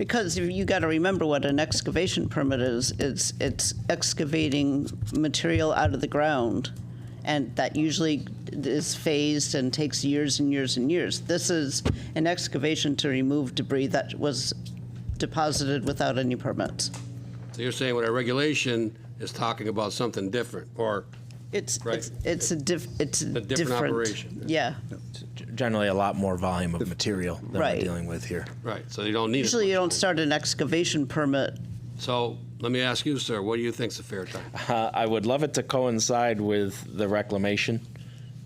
Because you got to remember what an excavation permit is. It's, it's excavating material out of the ground. And that usually is phased and takes years and years and years. This is an excavation to remove debris that was deposited without any permits. So you're saying what our regulation is talking about something different, or, It's, Right. it's, it's a diff, it's a different operation. Yeah. generally a lot more volume of material that Right. we're dealing with here. right, so you don't need it. Usually you don't start an excavation permit So let me ask you, sir, what do you think's a fair time? Uh, I would love it to coincide with the reclamation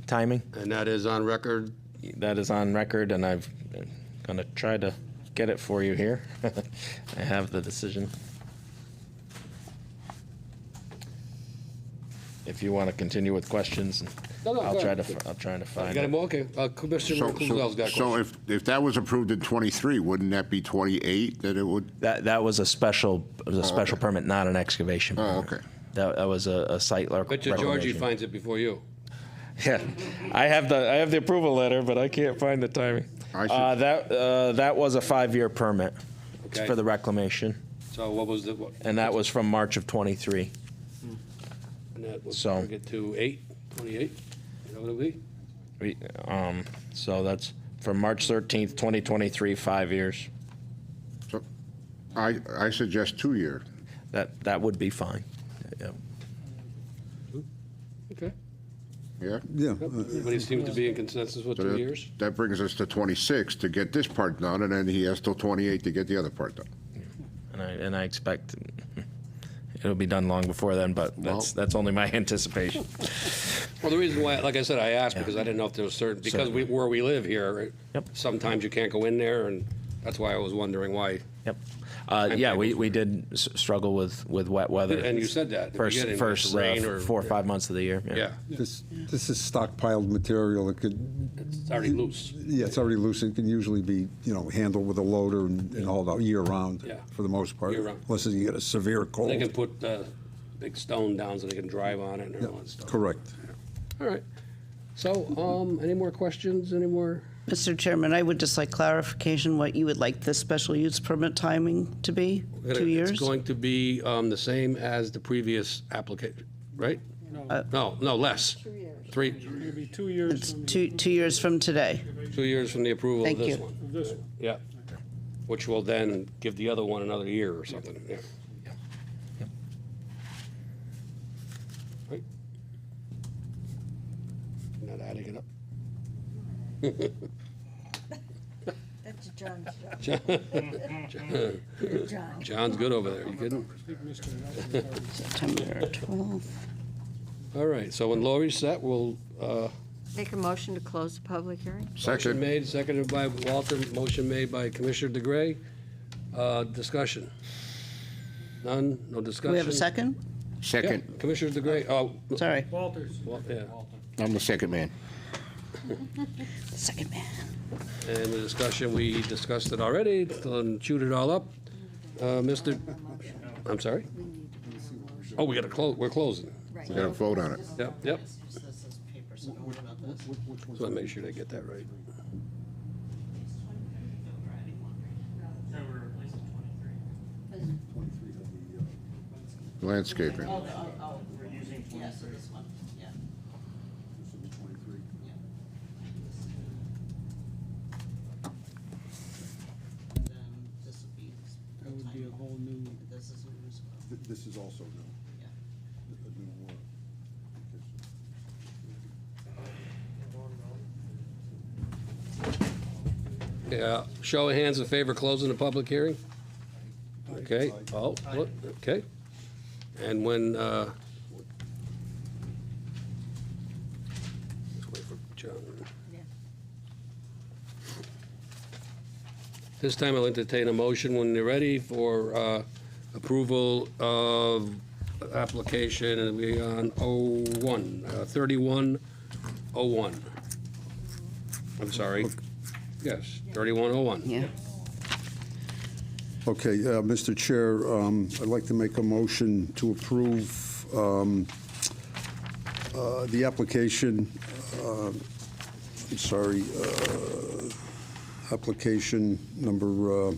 timing And that is on record, that is on record, and I've going to try to get it for you here. I have the decision. If you want to continue with questions, No, no, I'll go try to. ahead. f- I'll try to you find. got it. him, okay, uh, Commissioner So, Kuzel's so, got a so question. if, if that was approved in 23, wouldn't that be 28 that it would? That that was a special it was a special permit, not an excavation. Oh, permit. okay. That, that was a, a site. rec- Bet you Georgie reclamation. finds it before you. Yeah, I have the I have the approval letter, but I can't find the timing. I should- Uh, that uh, that was a five-year permit Okay. for the reclamation, So what was the, what? and that was from March of '23. And that was, so- we get to eight, twenty-eight, you know what it would be? We, um, so that's from March 13th, 2023, five years. so- I, I suggest two-year. That that would be fine. Yeah. Okay. Yeah. Yeah, Yep. Everybody seems to be in consensus with So two that- years? That brings us to 26 to get this part done, and then he has till 28 to get the other part done. And I and I expect it'll be done long before then, but that's that's only my anticipation. Well, the reason why, like I said, I asked because I didn't know if there was certain, because we, where we live here, Yep. sometimes you can't go in there, and that's why I was wondering why. Yep. Uh, I'm yeah, able we, to- we did s- struggle with, with wet weather. And you said that at the First, beginning, first like uh, rain or- four or five months of the year. Yeah, this, this is stockpiled material. It could, it's already loose. yeah, it's already loose. It can usually be, you know, handled with a loader and and hauled out year-round, Yeah. for the most part. Year-round. Unless you get a severe They can cold. put uh, big stone down so they can drive on it and all that stuff. Correct. All right. So, um, any more questions, any more? Mr. Chairman, I would just like clarification what you would like this special use permit timing to be, two years? It's going to be um, the same as the previous application, right? Uh, No, no, less. Two years. Three, It'll be two years It's from two, two years from today. two years from the approval of Thank this you. one. this one. Yeah. Which will then give the other one another year or something, yeah. Right? Not adding it up. That's John's job. John. John's good over there, you kidding? I think Mr. Nelson's already September 12th. All right, so when Lori's set, we'll, uh, Make a motion to close the public hearing? motion Second, made, seconded by Walter, motion made by Commissioner DeGray. Uh, discussion? None, no Do discussion? we have a second? Yeah, second, Commissioner DeGray, oh, Sorry. Walters. Wal- yeah. I'm the second man. Second man. And the discussion, we discussed it already, um, chewed it all up. Uh, Mr., I'm sorry? Oh, we gotta close, we're closing. We gotta vote on it. Yep, yep. So I make sure they get that right. uh, Landscaping. That would be a whole new. This is also new. Yeah, show of hands in favor of closing the public hearing? Okay, oh, look, okay. And when, uh... Let's wait for John. This time I'll entertain a motion when you're ready for uh, approval of application, and we on 01, uh, 3101. I'm sorry. Yes, 3101. Yeah. Okay, uh, Mr. Chair, um, I'd like to make a motion to approve um, uh, the application, uh, I'm sorry, uh, application number uh,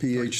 PH